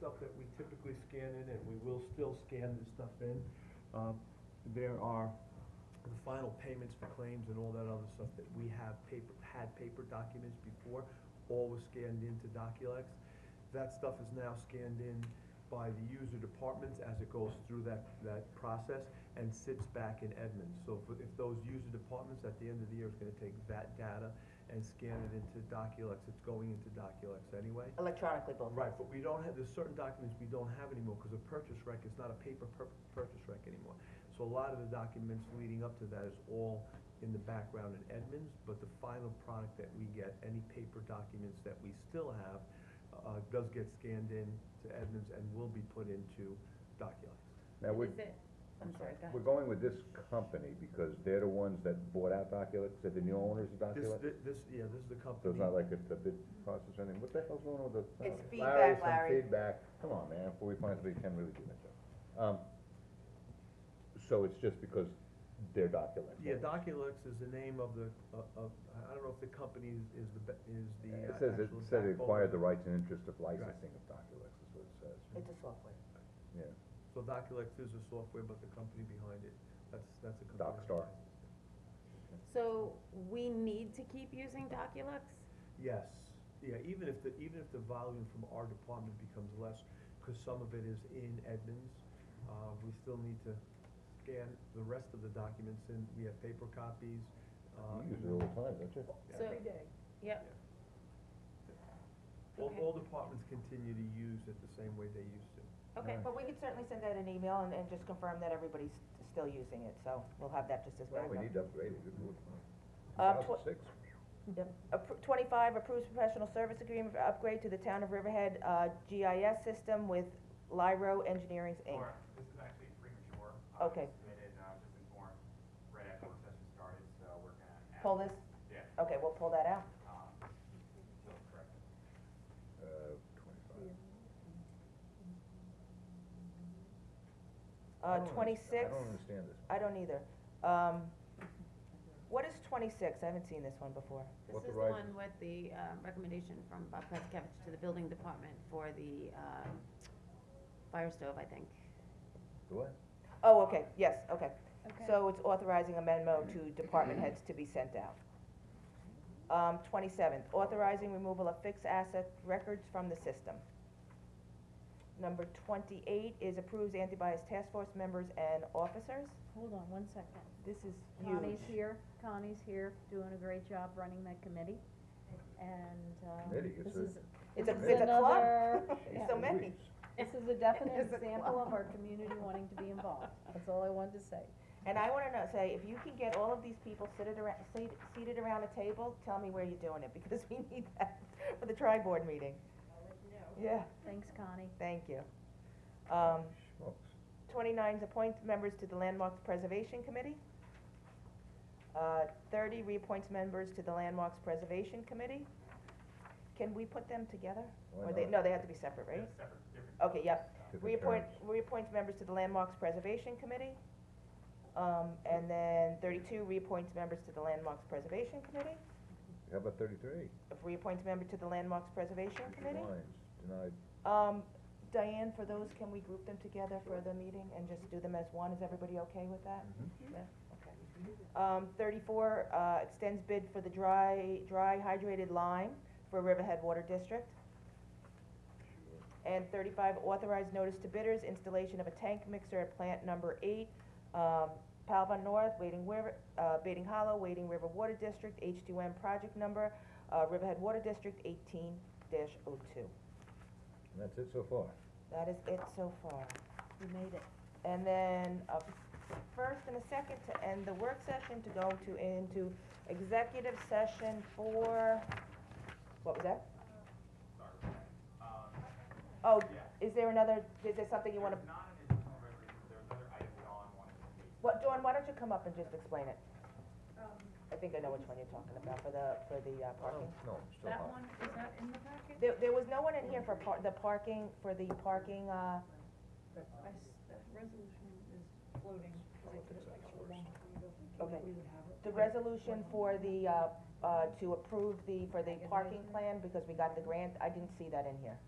that we typically scan in, and we will still scan this stuff in. Um, There are the final payments for claims and all that other stuff that we have paper, had paper documents before, all was scanned into Doculex. That stuff is now scanned in by the user departments as it goes through that, that process and sits back in Edmunds. So if, if those user departments at the end of the year is gonna take that data and scan it into Doculex, it's going into Doculex anyway. electronically both. Right, but we don't have, there's certain documents we don't have anymore, because a purchase rec is not a paper pur- purchase rec anymore. So a lot of the documents leading up to that is all in the background in Edmonds, but the final product that we get, any paper documents that we still have, uh, does get scanned in to Edmonds and will be put into Doculix. Now, we're, Is it, I'm sorry, go we're ahead. going with this company because they're the ones that bought out Doculix, they're the new owners of This, Doculix? thi- this, yeah, this is the company. So it's not like it's a bid process or anything, what the hell's going on with the? It's uh, feedback, some Larry. Feedback, come on, man, before we find somebody who can really do that job. Um, so it's just because they're Doculix? Yeah, Doculix is the name of the, of, of- I don't know if the company is- is the, be- is the It uh, says, it actual said it backbone. acquired the rights and interest of licensing of Doculix, is what it says, It's a software. yeah. So Doculex is the software, but the company behind it, that's, that's a company. that Docstar. buys it. So we need to keep using Doculux? Yes, yeah, even if the, even if the volume from our department becomes less, cause some of it is in Edmonds, uh, we still need to scan the rest of the documents in, we have paper copies, uh. You use it all the time, don't you? So- yeah. day. Yep. All, Okay. all departments continue to use it the same way they used to. Okay, Alright. But we could certainly send out an email and, and just confirm that everybody's s- still using it, so we'll have that just as Well, backup. we need to upgrade it, Uh, Two tw- thousand six, Yep. Appro- Twenty-five, approves professional service agreement for upgrade to the town of Riverhead, uh, GIS system with Lyro Engineering Inc. Or, this is actually premature. Uh, Okay. it's Submitted, and I was just informed right after work session started, so we're gonna. add- Pull this, Yeah, okay, we'll pull that out. um, so it's correct. uh, twenty-five. I Uh, don't underst- twenty-six, I don't understand this. I don't either. Um, what is twenty-six? I haven't seen this one before. This What the is the right- one with the, um, recommendation from Bob Preskevich to the building department for the, um, fire stove, I think. Do what? Oh, okay, yes, okay. So it's authorizing a memo to department heads to be sent out. Um, twenty-seventh, authorizing removal of fixed asset records from the system. Number twenty-eight is approves anti-bias task force members and officers. Hold on one second. This is Connie's huge. here, Connie's here, doing a great job running that committee, and, um, Committee, it's this a- is, It's a, this it's a club. another- It's so many. Jeez. this is a definite example of our community wanting to be involved, that's all I wanted to say. And I wanna know, say, if you can get all of these people seated around, seat- seated around a table, tell me where you're doing it, because we need that for the tri-board meeting. Yeah, Thanks, Connie. thank you. Um, Smokes. Twenty-nine is appoint members to the Landmarks Preservation Committee. Uh, thirty reappoints members to the Landmarks Preservation Committee. Can we put them together? Why Or they, not? no, they have to be separate, right? They're Separate, different. Okay, yep. Different Reappoint, terms. reappoints members to the Landmarks Preservation Committee. Um, and then thirty-two reappoints members to the Landmarks Preservation Committee. How about thirty-three? Reappoints member to the Landmarks Preservation Committee. Lines, denied, Um, Diane, for those, can we group them together for the meeting and just do them as one? Is everybody okay with that? Yeah, okay. Um, thirty-four, uh, extends bid for the dry, dry hydrated lime for Riverhead Water District. And thirty-five, authorized notice to bidders, installation of a tank mixer at plant number eight, um, Palva North, Wading River, uh, Wading Hollow, Wading River Water District, H two M project number, uh, Riverhead Water District eighteen dash oh two. and that's it so far. That is it so far. You made it. And then a first and a second to end the work session, to go to, into executive session for, what was that? Sorry for that. Um, Oh, Yeah. is there another, is there something you wanna, There's not an additional resolution, there's other items Dawn wanted to take. what, Dawn, why don't you come up and just explain it? Um, I think I know which one you're talking about, for the, for the uh, parking. Oh. No, I'm still hot. is that in the packet? There, there was no one in here for par, the parking, for the parking, I uh, s- That resolution is floating, because I put it like a long time ago, thinking that Okay. we would have it. the resolution for the, uh, uh, to approve the, for the parking plan, because we got the grant, I didn't see that in here.